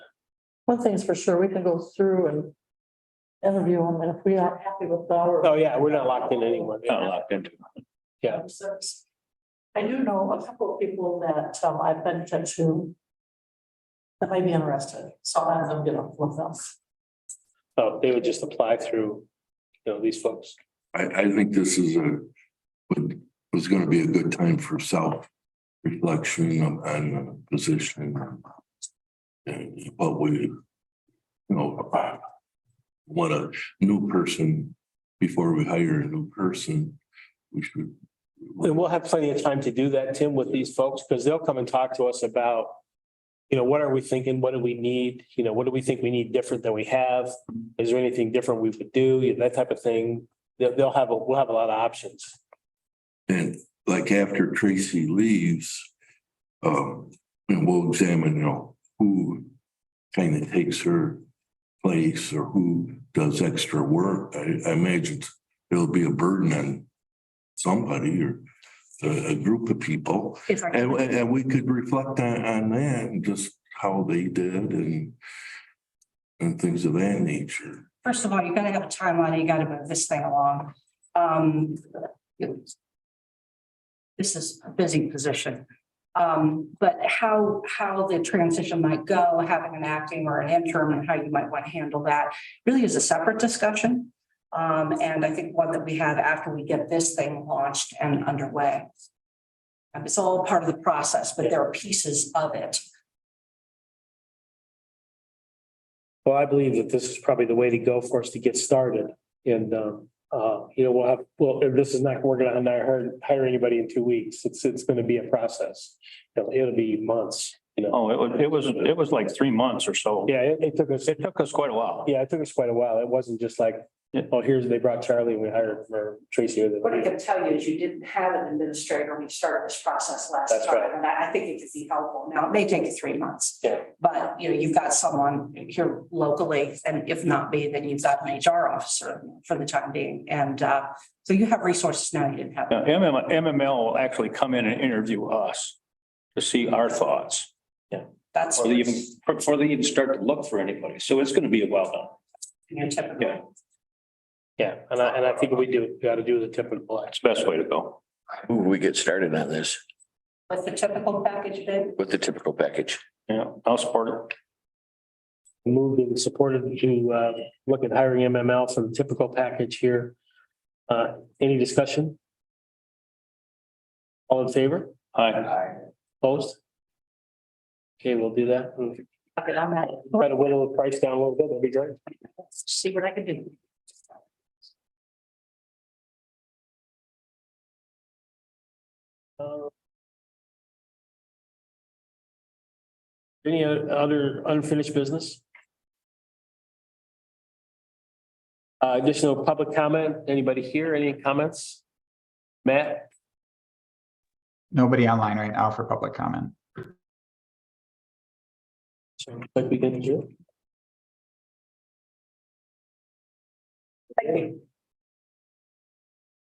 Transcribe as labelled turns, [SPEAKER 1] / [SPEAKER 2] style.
[SPEAKER 1] One thing's for sure, we can go through and interview them, and if we aren't happy with our.
[SPEAKER 2] Oh, yeah, we're not locked in anywhere.
[SPEAKER 3] Kind of locked into. it.
[SPEAKER 2] yeah.
[SPEAKER 1] service. I do know a couple of people that um, I've been to who that may be interested, so I'll have them get up with us.
[SPEAKER 2] Oh, they would just apply through, you know, these folks.
[SPEAKER 4] I, I think this is a, would, was gonna be a good time for self reflection on, on the position. And what we, you know, what a new person, before we hire a new person, we should.
[SPEAKER 2] And we'll have plenty of time to do that, Tim, with these folks, because they'll come and talk to us about, you know, what are we thinking? What do we need? You know, what do we think we need different than we have? Is there anything different we would do? You know, That type of thing. They'll, they'll have, a we'll have a lot of options.
[SPEAKER 4] And like after Tracy leaves, um, and we'll examine, you know, who kind of takes her place or who does extra work. I, I imagine it'll be a burden on somebody or a, a group of people.
[SPEAKER 5] If our-
[SPEAKER 4] And, and and we could reflect on, on that and just how they did and and things of that nature.
[SPEAKER 5] First of all, you gotta have a timeline, you gotta move this thing along. Um. This is a busy position. Um, but how, how the transition might go, having an acting or an interim and how you might want to handle that really is a separate discussion. Um, and I think one that we have after we get this thing launched and underway. And It's all part of the process, but there are pieces of it.
[SPEAKER 2] Well, I believe that this is probably the way to go for us to get started. And, um, uh, you know, we'll have, well, this is not, we're gonna hire, hire anybody in two weeks. It's, it's gonna be a process. It'll, it'll be months, you know.
[SPEAKER 3] Oh, it was, it was, it was like three months or so.
[SPEAKER 2] Yeah, it, it took us,
[SPEAKER 3] It took us quite a while.
[SPEAKER 2] yeah, it took us quite a while. It wasn't just like,
[SPEAKER 3] Yeah.
[SPEAKER 2] oh, here's, they brought Charlie and we hired or Tracy. or the-
[SPEAKER 6] What I can tell you is you didn't have an administrator when you started this process last
[SPEAKER 2] That's right.
[SPEAKER 6] time, and I, I think it could be helpful
[SPEAKER 5] Now,
[SPEAKER 6] now.
[SPEAKER 5] it may take you three months.
[SPEAKER 2] Yeah.
[SPEAKER 5] But, you know, you've got someone here locally, and if not me, then you've got an HR officer for the time being. And uh, so you have resources now you didn't have.
[SPEAKER 3] Now, MM MML will actually come in and interview us to see our thoughts,
[SPEAKER 5] That's
[SPEAKER 3] before they even, before they even start to look for anybody. So it's going to be a well done.
[SPEAKER 5] your
[SPEAKER 3] Yeah.
[SPEAKER 5] typical.
[SPEAKER 2] Yeah, and I, and I think we do, gotta do the typical action.
[SPEAKER 3] It's the best way to go.
[SPEAKER 7] Ooh, we get started on this
[SPEAKER 5] What's the typical package bid?
[SPEAKER 7] with the typical package.
[SPEAKER 3] Yeah, I'll support
[SPEAKER 2] moved and supported to uh, look at hiring MML for the typical package here. Uh, Any discussion? All in favor?
[SPEAKER 3] it. Aye.
[SPEAKER 2] Opposed? Okay, we'll do that.
[SPEAKER 6] Okay, I'm at
[SPEAKER 2] Try to whittle the price down a little bit, that'd be great.
[SPEAKER 6] See what I can do.
[SPEAKER 2] Uh, Any other unfinished business? Uh, Additional public comment? Anybody here? Any comments? Matt?
[SPEAKER 8] Nobody online right now for public comment.
[SPEAKER 2] So like we did in June.